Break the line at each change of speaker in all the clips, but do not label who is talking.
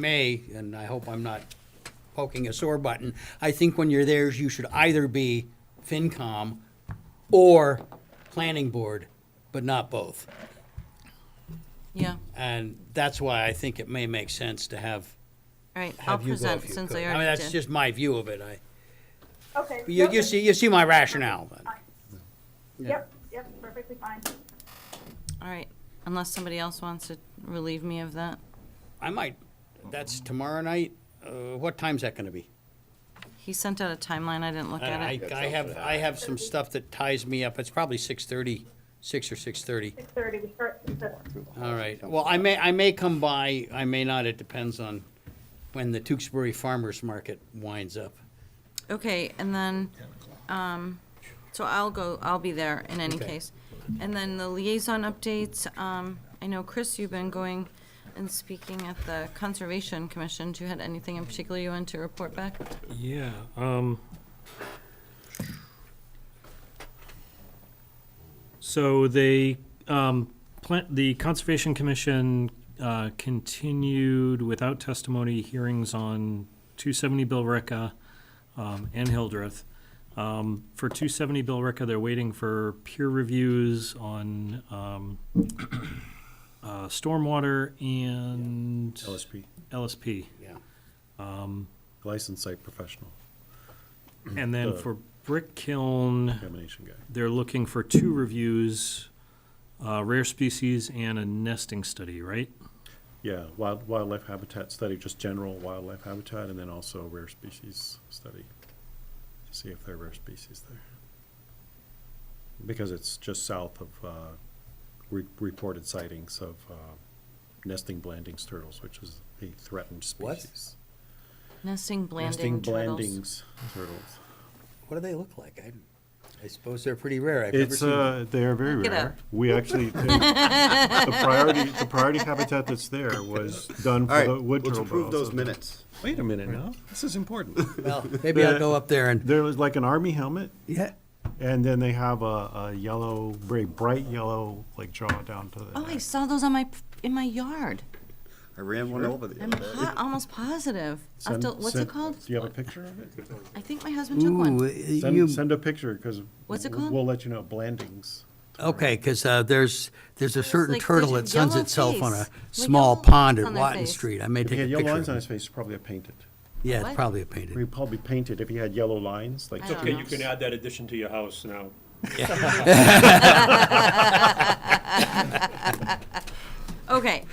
may, and I hope I'm not poking a sore button, I think when you're there, you should either be FinCom or Planning Board, but not both.
Yeah, all
And that's why I think it may make sense to have,
right, I'll
have you go
present
if you
since
could.
I
mean,
already
that's
did.
just my view of it. I,
Okay.
you,
Nope,
you see, you see my rationale. but-
Yep, yep, perfectly fine.
All right, unless somebody else wants to relieve me of that.
I might, that's tomorrow night. Uh, what time's that gonna be?
He sent out a timeline, I didn't look at
I,
it.
I have, I have some stuff that ties me up. It's probably six thirty, six or six thirty.
Six thirty, we start with the,
All right, well, I may, I may come by, I may not, it depends on when the Tewksbury Farmers Market winds up.
Okay, and then, um, so I'll go, I'll be there in any
Okay.
case. And then the liaison updates, um, I know, Chris, you've been going and speaking at the Conservation Commission. Do you had anything in particular you wanted to report back?
Yeah, um. So they, um, plant, the Conservation Commission, uh, continued without testimony hearings on two seventy Billerica, um, and Hildreth. Um, for two seventy Billerica, they're waiting for peer reviews on, um, uh, stormwater and
LSP,
LSP.
Yeah.
licensed site professional,
And then
The-
for Brick Kiln,
examination guy.
they're looking for two reviews, uh, rare species and a nesting study, right?
Yeah, wild, wildlife habitat study, just general wildlife habitat, and then also rare species study, to see if there are rare species there. Because it's just south of, uh, re- reported sightings of, uh, nesting blandings turtles, which is a threatened
What?
species.
Nesting
Nesting
blanding turtles.
blandings turtles.
What do they look like? I, I suppose they're pretty rare. I've never
It's
seen. them.
uh, they are very
Look it
rare.
up.
We actually the priority the priority habitat that's there was done for
All right,
the wood
let's
turtle.
approve
burrows.
those minutes.
Wait a minute now, this is important.
Well, maybe I'll
the-
go up there and,
there was like an army helmet,
yeah,
and then they have a, a yellow, very bright yellow, like jaw down to the.
Oh, I
neck.
saw those on my, in my yard.
I ran one over the
I'm
other day.
po- almost positive. I'll have
Send-
to- what's it
send-
called?
Do you have a picture of it?
I think my husband took
uh,
one.
Send, send a picture because
What's it called?
We'll let you know. Blandings.
okay, because, uh, there's, there's a certain
like
turtle
there's a
that suns
yellow
itself on a
face. Like
small
yellow
pond
lines
at
on their
Watton
face.
Street. I may
If he
take a
had yellow lines on
picture.
his face, it's probably a painted.
Yeah, it's
What?
probably a
He
painted.
probably painted if he had yellow lines, like
I don't
Okay,
know.
you can add that addition to your house now.
Okay.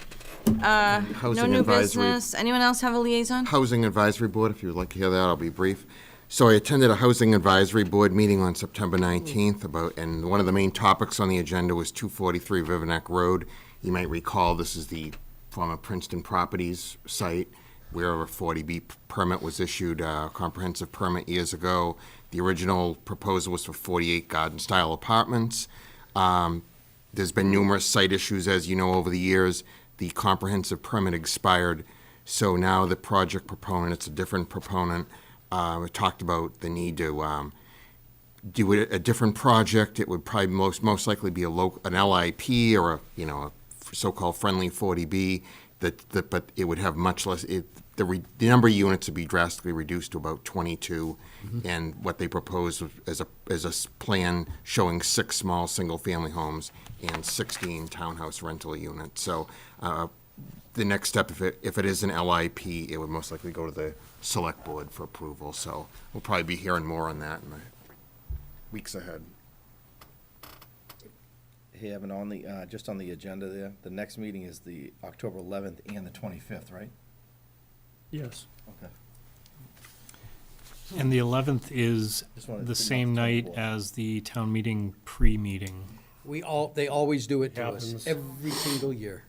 Uh, no
Housing
new
advisory.
business. Anyone else have a liaison?
Housing Advisory Board, if you would like to hear that, I'll be brief. So I attended a Housing Advisory Board meeting on September 19th about, and one of the main topics on the agenda was 243 Riverneck Road. You might recall, this is the former Princeton Properties site where a 40B permit was issued, uh comprehensive permit years ago. The original proposal was for 48 garden-style apartments. Um, There's been numerous site issues, as you know, over the years. The comprehensive permit expired, so now the project proponent, it's a different proponent, uh, talked about the need to um, do it- a different project. It would probably most, most likely be a loc, an LIP or a, you know, a so-called friendly 40B, that, that, but it would have much less, it, the, re- the number of units would be drastically reduced to about 22. And what they proposed was- as a, as a s- plan showing six small, single-family homes and 16 townhouse rental units. So, uh, the next step, if it, if it is an LIP, it would most likely go to the select board for approval. So we'll probably be hearing more on that in the weeks ahead.
Hey, Evan, on the, uh, just on the agenda there, the next meeting is the October 11th and the 25th, right?
Yes.
Okay.
And the eleventh is
Just wanted to
the
see
same
about the
night
24th.
as the town meeting pre-meeting.
We all, they always do it to us,
Happens.
every single year.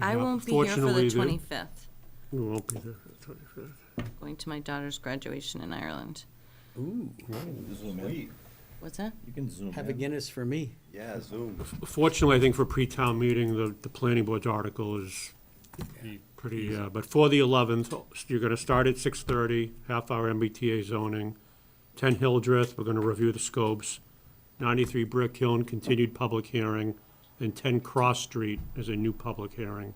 I won't be here for the
Fortunately, the-
25th,
We won't be there for the 25th.
going to my daughter's graduation in Ireland.
Ooh,
Zoom in.
What's that?
You can
Oh,
zoom
have a
in.
Guinness for me.
Yeah, Zoom.
Fortunately, I think for pre-town meeting, the, the planning board's article is pretty, uh, but for the 11th, you're going to start at 6:30, half hour MBTA zoning, 10 Hildreth, we're going to review the scopes, 93 Brick Hill, continued public hearing, and 10 Cross Street is a new public hearing.